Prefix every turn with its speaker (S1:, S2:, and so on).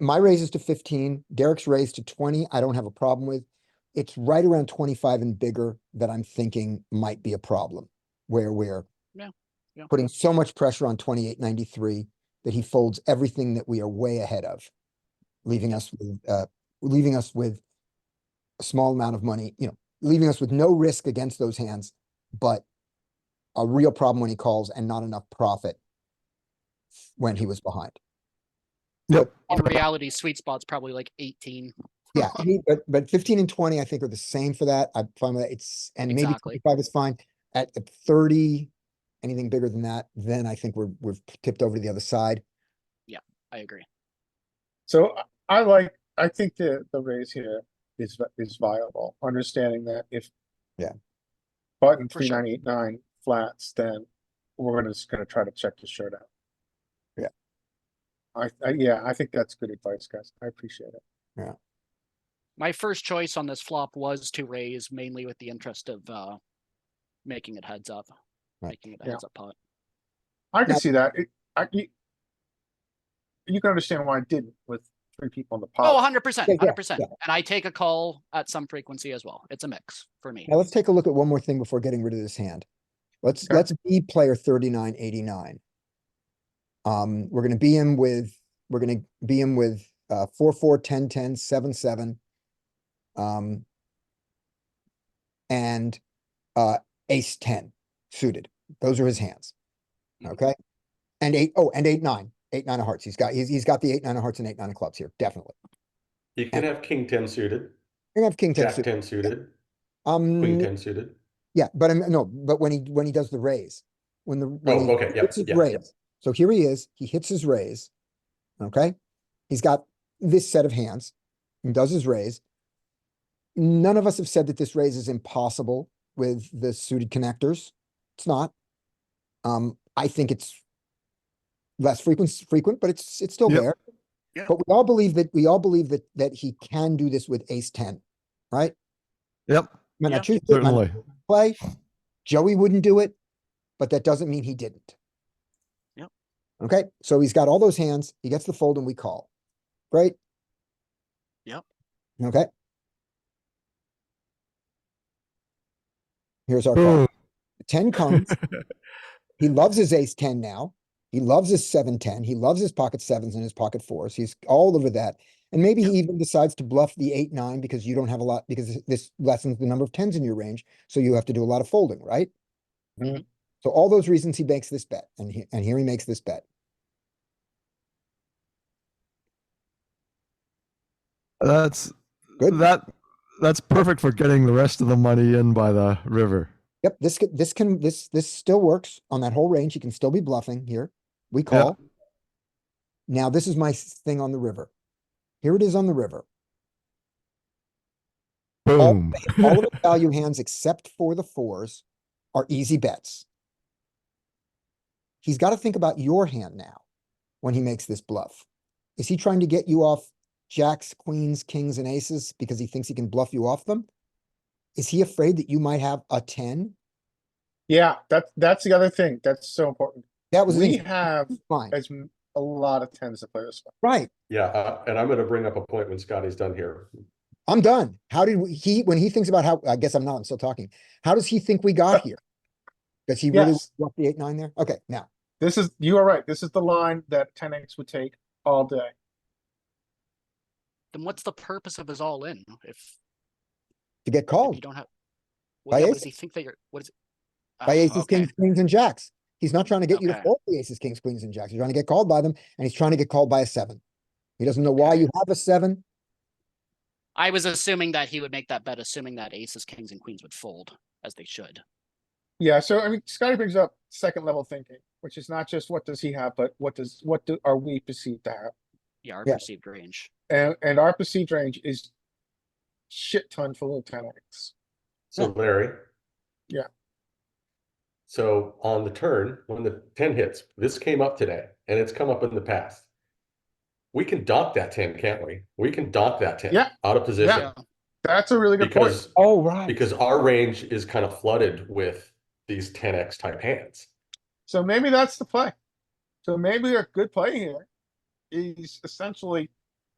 S1: my raise is to fifteen, Derek's raise to twenty, I don't have a problem with. It's right around twenty-five and bigger that I'm thinking might be a problem, where we're
S2: Yeah, yeah.
S1: putting so much pressure on twenty-eight ninety-three that he folds everything that we are way ahead of, leaving us with, uh, leaving us with a small amount of money, you know, leaving us with no risk against those hands, but a real problem when he calls and not enough profit when he was behind.
S2: In reality, sweet spot's probably like eighteen.
S1: Yeah, I mean, but but fifteen and twenty, I think, are the same for that. I find that it's and maybe
S2: Exactly.
S1: twenty-five is fine. At at thirty, anything bigger than that, then I think we're we've tipped over to the other side.
S2: I agree.
S3: So I- I like, I think the, the raise here is, vi- is viable, understanding that if.
S1: Yeah.
S3: Button
S2: For
S3: three
S2: sure.
S3: nine eight nine flats, then we're gonna- just gonna try to check the shirt out.
S1: Yeah.
S3: I, I, yeah, I think that's good advice, guys. I appreciate it.
S2: My first choice on this flop was to raise mainly with the interest of uh making it heads up,
S1: Right.
S2: making it a
S3: Yeah.
S2: heads up pot.
S3: I
S1: Now-
S3: can see that. It, I, you. You can understand why I didn't with three people in the
S2: Oh,
S3: pot.
S2: hundred percent,
S1: Yeah, yeah,
S2: hundred percent. And I take a call at some frequency as well. It's a mix for me.
S1: Now let's take a look at one more thing before getting rid of this hand. Let's
S3: Sure.
S1: let's be player thirty-nine eighty-nine. Um, we're gonna be him with, we're gonna be him with uh four, four, ten, ten, seven, seven. Um. And uh ace ten suited. Those are his hands.
S4: Hmm.
S2: Mhm.
S1: Okay? And eight, oh, and eight, nine, eight, nine of hearts. He's got, he's he's got the eight, nine of hearts and eight, nine of clubs here, definitely.
S4: You can have king ten suited,
S1: We're gonna have king ten
S4: jack
S1: suited.
S4: ten suited,
S3: Mm-hmm.
S4: queen
S1: Um,
S4: ten suited.
S1: yeah, but I'm, no, but when he, when he does the raise, when the. when he-
S4: Oh, okay, yep,
S1: hits his
S4: yep, yep.
S1: raise. So here he is, he hits his raise. Okay, he's got this set of hands and does his raise. None of us have said that this raise is impossible with the suited connectors. It's not. Um, I think it's less frequent, frequent, but it's, it's still
S5: Yep.
S1: there.
S2: Yeah.
S1: But we all believe that, we all believe that, that he can do this with ace ten, right?
S5: Yep,
S1: Might not
S2: Yep.
S1: choose it, might not
S5: certainly.
S1: play. Joey wouldn't do it, but that doesn't mean he didn't.
S2: Yep.
S1: Okay, so he's got all those hands. He gets the fold and we call. Great.
S2: Yep.
S1: Okay. Here's our call.
S5: Boom.
S1: Ten comes. He loves his ace ten now. He loves his seven ten. He loves his pocket sevens and his pocket fours. He's all over that. And maybe he even decides to bluff the eight nine because you don't have a lot because this lessens the number of tens in your range. So you have to do a lot of folding, right?
S3: Mhm.
S1: So all those reasons he makes this bet, and he, and here he makes this bet.
S5: That's
S1: Good.
S5: that. That's perfect for getting the rest of the money in by the river.
S1: Yep, this can, this can this this still works on that whole range. He can still be bluffing here. We call. Now this is my s- thing on the river. Here it is on the river.
S5: Boom.
S1: All of the value hands except for the fours are easy bets. He's got to think about your hand now when he makes this bluff. Is he trying to get you off jacks, queens, kings, and aces because he thinks he can bluff you off them? Is he afraid that you might have a 10?
S3: Yeah, that's, that's the other thing. That's so important.
S1: That was the
S3: We
S1: thing.
S3: have
S1: fine.
S3: as m- a lot of tens to play this. one.
S1: Right.
S4: Yeah, uh, and I'm gonna bring up a point when Scotty's done here.
S1: I'm done. How did we- he, when he thinks about how, I guess I'm not, I'm still talking. How does he think we got here? Does he really
S3: Yes.
S1: want the eight, nine there? Okay, now,
S3: This is, you are right. This is the line that ten X would take all day.
S2: Then what's the purpose of his all in if
S1: to get
S2: if you
S1: called
S2: don't have?
S1: Oh. By
S2: Well, yeah, what does he
S1: aces.
S2: think that you're, what is? it?
S1: by
S2: Oh,
S1: aces,
S2: okay.
S1: kings, queens and jacks. He's not trying to get you to
S2: Okay.
S1: fold the aces, kings, queens and jacks. He's trying to get called by them and he's trying to get called by a seven. He doesn't know why you have a seven.
S2: I was assuming that he would make that bet, assuming that aces, kings, and queens would fold as they should.
S3: Yeah, so I mean, Scotty brings up second level thinking, which is not just what does he have, but what does, what do, are we perceived to have?
S2: Yeah, our
S1: Yeah.
S2: perceived range.
S3: And, and our perceived range is shit ton full of ten X.
S4: So Larry.
S3: Yeah.
S4: So on the turn, when the ten hits, this came up today and it's come up in the past. We can dock that ten, can't we? We can dock that ten
S3: Yeah.
S4: out of position
S3: That's a really good point.
S4: because,
S1: Oh, right.
S4: because our range is kind of flooded with these ten X type hands.
S3: So maybe that's the play. So maybe a good play here is essentially